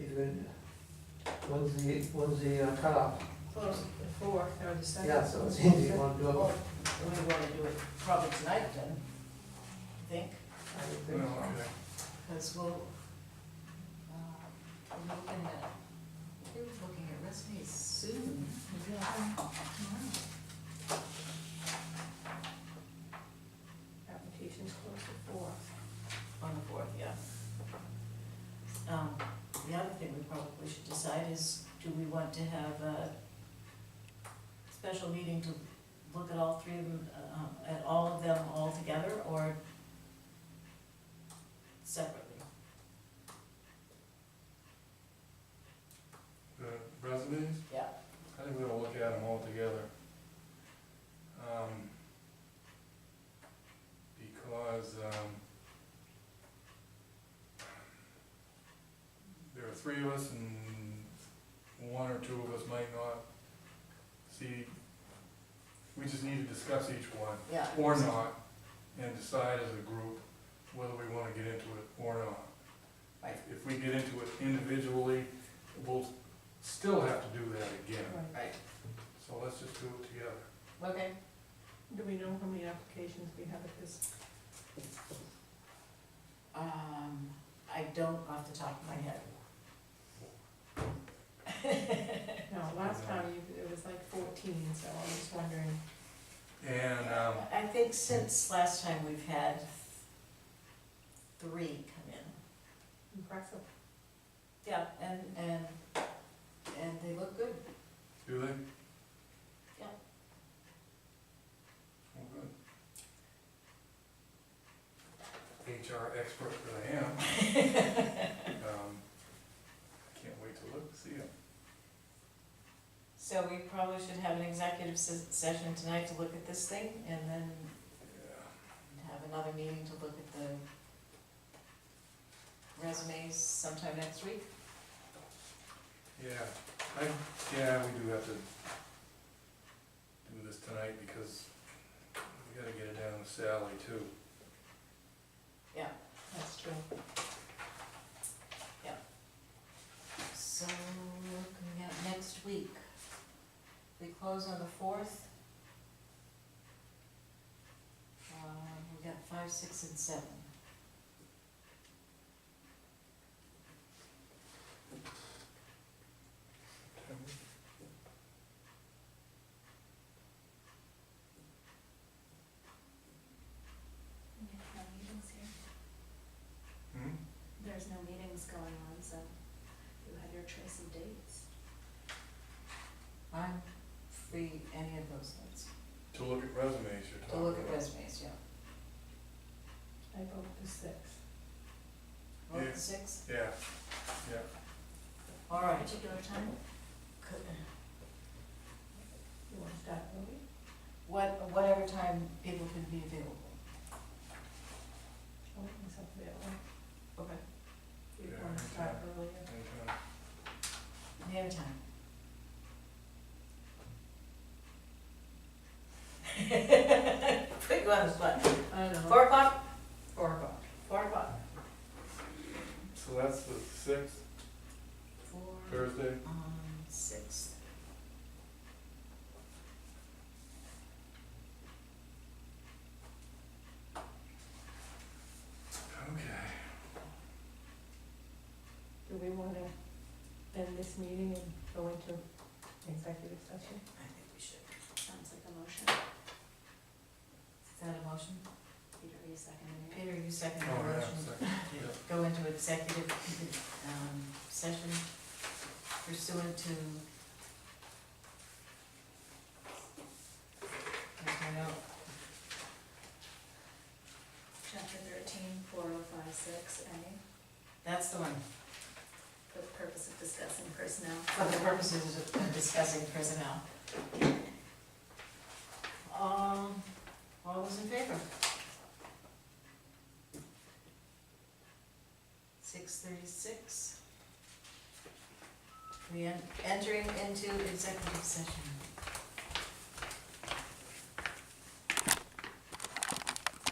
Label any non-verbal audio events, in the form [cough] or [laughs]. good. When's the, when's the uh, cutoff? Close at four, or the second. Yeah, so it's easy, you wanna do it? Well, we want to do it probably tonight then, I think, I would No, think so. okay. because we'll, uh, we're looking at, we're looking at resumes soon. Maybe I'll have them tomorrow. Applications close at four. On the fourth, yeah. Um, the other thing we probably should decide is, do we want to have a special meeting to look at all three of them, um, at all of them all together, or separately? The resumes, Yeah, I think we're gonna look at them all together. Um, Because, um, there are three of us and one or two of us might not see, we just need to discuss each one. yeah. or not, and decide as a group whether we wanna get into it or not. Right. If we get into it individually, we'll still have to do that again, Right, so let's just do it together. okay. Do we know how many applications we have at this? Um, I don't off the top of my head. No, last time you- it was like fourteen, so I'm just wondering. And, um, [laughs] I think since last time we've had three come in. Impressive. Yeah, and, and, and they look good. do they? Yeah. Well, good. HR expert that [laughs] I am. Um, Can't wait to look, see it. So we probably should have an executive se- session tonight to look at this thing and then Yeah. have another meeting to look at the resumes sometime next week. Yeah, I, yeah, we do have to do this tonight because we gotta get it down to Sally too. That's true. So looking at next week, we close on the fourth. Uh, we got five, six, and seven. There's no meetings here. Hmm? There's no meetings going on, so you have your choice of dates. I'm free any of those nights, To look at resumes you're to talking about. look at resumes, yeah. I vote the sixth. Vote Yeah. six, Yeah, all right. Particular time? Could- You want to start early? What, whatever time people can be available. I'll make myself available. Okay. Do you Yeah, want to okay. start earlier? anytime. Any other time. [laughs] Put you on the spot. I don't know. Four o'clock? Four o'clock. Four o'clock. So that's the sixth, Four um, Thursday, on sixth. okay. Do we want to end this meeting and go into executive session? I think we should. Sounds like a motion. Is that a motion? Peter, are you seconding it? Peter, you second the Oh, yeah, motion. second, yeah. Go into executive, um, session pursuant to. Can't find out. Chapter thirteen, four oh five six A, That's the one, for the purpose of discussing personnel. for the purposes of discussing personnel. Um, all those in favor? Six thirty-six. We are entering into executive session.